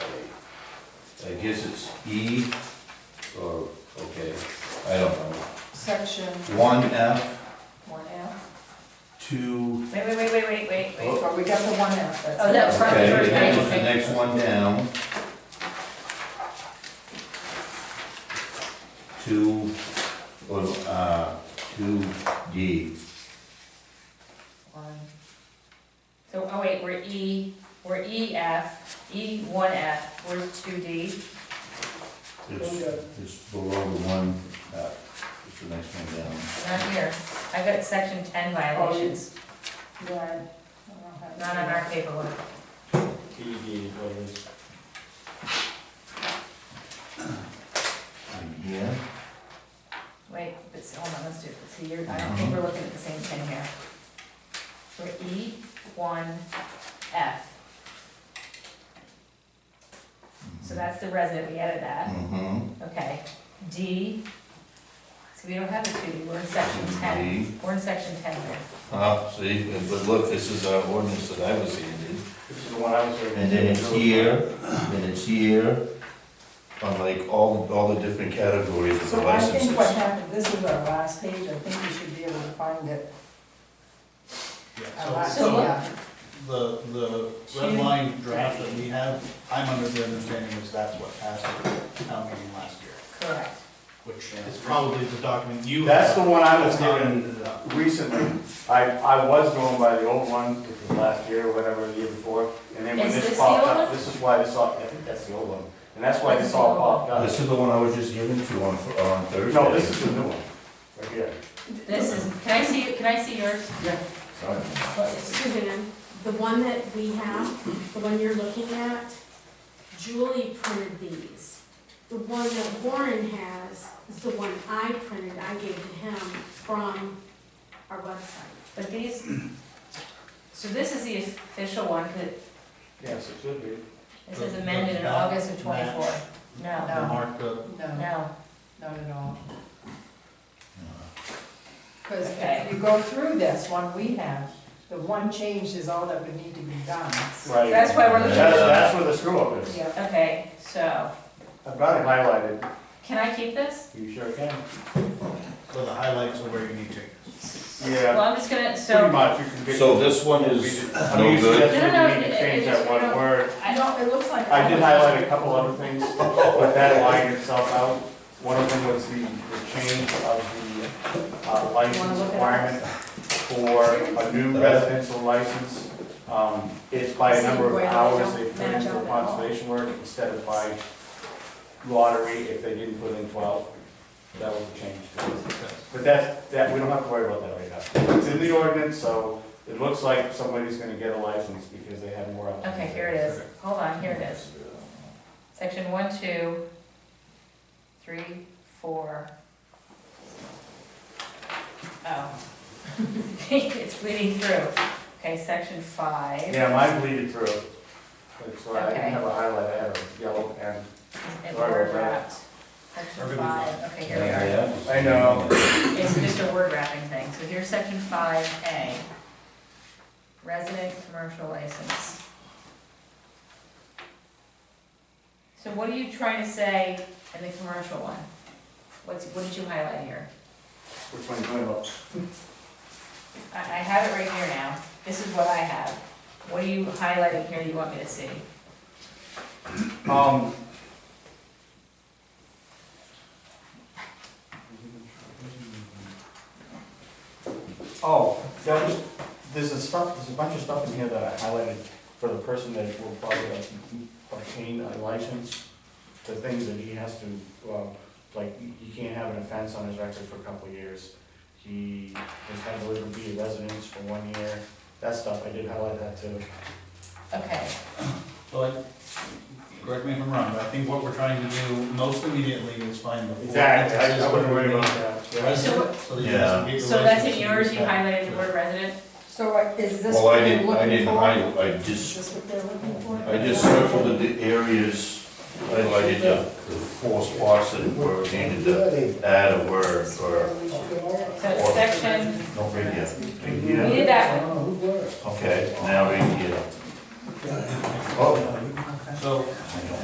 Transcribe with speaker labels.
Speaker 1: I guess it's E, or, okay, I don't know.
Speaker 2: Section
Speaker 1: One F,
Speaker 2: one F.
Speaker 1: two,
Speaker 3: Wait, wait, wait, wait, wait, wait, wait.
Speaker 2: Oh, we got the one F, that's.
Speaker 3: Oh, that was front,
Speaker 1: okay,
Speaker 3: first
Speaker 1: that
Speaker 3: page.
Speaker 1: was the next one down. Two, or, uh, two D,
Speaker 2: One,
Speaker 3: So, oh wait, we're E, we're EF, E one F, we're two D.
Speaker 1: it's, it's below the one, uh, it's the next one down.
Speaker 3: Not here. I got section ten violations,
Speaker 2: yeah.
Speaker 3: not on our paperwork.
Speaker 4: PD is what it is.
Speaker 1: And here,
Speaker 3: Wait, but, hold on, let's do, it. see, you're, I don't think we're looking at the same thing here. We're E one F. So that's the resident, we added that,
Speaker 1: mm-hmm.
Speaker 3: okay. D, so we don't have a two, we're in section ten, we're in section ten here.
Speaker 1: Ah, see, but look, this is our ordinance that I was handed.
Speaker 4: This is the one I was. reading.
Speaker 1: And then it's here, then it's here, on like all, all the different categories of the
Speaker 2: So I think what
Speaker 1: licenses.
Speaker 2: happened, this is our last page, I think we should be able to find it. Our
Speaker 5: Yeah,
Speaker 2: last-
Speaker 5: so, so
Speaker 2: yeah.
Speaker 5: the, the red line draft that we have, I'm under the understanding is that's what passed at town meeting last year,
Speaker 3: Correct.
Speaker 5: which is probably the document you.
Speaker 4: That's the one I was
Speaker 5: That's not
Speaker 4: given
Speaker 5: ended up.
Speaker 4: recently. I, I was going by the old one, which was last year or whatever, the year before. And then when
Speaker 3: Is this
Speaker 4: this
Speaker 3: the
Speaker 4: popped
Speaker 3: old
Speaker 4: up,
Speaker 3: one?
Speaker 4: this is why this all, I think that's the old one. And that's why this all popped
Speaker 1: This
Speaker 4: up.
Speaker 1: is the one I was just given to you on, on Thursday.
Speaker 4: No, this is the new one, right here.
Speaker 3: This is, can I see, can I see yours?
Speaker 1: Sorry.
Speaker 6: Suzanne, the one that we have, the one you're looking at, Julie printed these. The one that Warren has is the one I printed, I gave to him from our website.
Speaker 3: But these, so this is the official one, that
Speaker 4: Yes, it should be.
Speaker 3: this is amended in August of twenty-four. No,
Speaker 2: No.
Speaker 5: The mark the,
Speaker 2: No,
Speaker 3: no,
Speaker 2: not at all. Because
Speaker 3: Okay.
Speaker 2: if you go through this one we have, the one change is all that would need to be done.
Speaker 4: Right.
Speaker 3: that's why we're
Speaker 4: That's,
Speaker 3: looking-
Speaker 4: that's where the screw up is.
Speaker 2: Yeah,
Speaker 3: okay, so,
Speaker 4: I've got it highlighted.
Speaker 3: can I keep this?
Speaker 4: You sure can.
Speaker 5: so the highlights are where you need changes.
Speaker 4: Yeah.
Speaker 3: Well, I'm just gonna,
Speaker 4: Pretty
Speaker 3: so,
Speaker 4: much, you can get.
Speaker 1: So this one
Speaker 4: We
Speaker 1: is
Speaker 4: did- I mean,
Speaker 1: no
Speaker 4: you
Speaker 1: good?
Speaker 4: suggested
Speaker 3: No, no,
Speaker 4: we
Speaker 3: it-
Speaker 4: need to
Speaker 3: it-
Speaker 4: change
Speaker 3: it's-
Speaker 4: that
Speaker 3: we
Speaker 4: one
Speaker 3: don't-
Speaker 4: word.
Speaker 2: I
Speaker 3: I,
Speaker 2: know, it looks like.
Speaker 4: I did highlight a couple other things, but that lined itself out. One of them was the, the change of the uh, license requirement for a new residential license. Um, It's by a number of hours they put in for conservation work instead of by lottery if they didn't put in twelve. That was a change to it. But that's, that, we don't have to worry about that right now. It's in the ordinance, so it looks like somebody's gonna get a license because they have more. options.
Speaker 3: okay, here it is, hold on, here it is. Section one, two, three, four. Oh. It's bleeding through. Okay, section five.
Speaker 4: Yeah, mine bleeded through. That's why I
Speaker 3: Okay.
Speaker 4: didn't have a highlight, I had a yellow pen.
Speaker 3: And
Speaker 4: Sorry
Speaker 3: word
Speaker 4: about that.
Speaker 3: wrapped. Section
Speaker 5: Everybody's
Speaker 3: five, okay, here
Speaker 1: Yeah.
Speaker 4: I know.
Speaker 3: we are. It's just a word wrapping thing. So here's section five A. Resident commercial license. So what are you trying to say in the commercial one? What's, what did you highlight here?
Speaker 4: Which one you talking about?
Speaker 3: I, I have it right here now. This is what I have. What are you highlighting here you want me to see?
Speaker 4: Um. Oh, that was, there's a stuff, there's a bunch of stuff in here that I highlighted for the person that will probably obtain a license. The things that he has to, um, like, he can't have an offense on his record for a couple of years. He has had to live and be a resident for one year, that stuff, I did highlight that too.
Speaker 3: Okay,
Speaker 5: Well, I- correct me if I'm wrong, but I think what we're trying to do most immediately is find the. four instances where we need
Speaker 4: that.
Speaker 5: the
Speaker 4: yeah.
Speaker 5: resident, so that you
Speaker 1: Yeah.
Speaker 5: can get the
Speaker 3: so that's
Speaker 5: residents
Speaker 3: in
Speaker 5: to
Speaker 3: yours, you
Speaker 5: respect.
Speaker 3: highlighted the word resident?
Speaker 2: So uh, is this
Speaker 1: Well, I
Speaker 2: what they're
Speaker 1: didn't, I
Speaker 2: looking
Speaker 1: didn't
Speaker 2: for?
Speaker 1: hide, I just,
Speaker 2: Is this what they're looking for?
Speaker 1: I just circled the areas, highlighted the, the four spots that were needed to add a word or,
Speaker 3: So it's section,
Speaker 1: no, right here. Right
Speaker 3: we
Speaker 1: here.
Speaker 3: did that one.
Speaker 1: Okay, now right here. Oh,
Speaker 5: So,
Speaker 1: I know.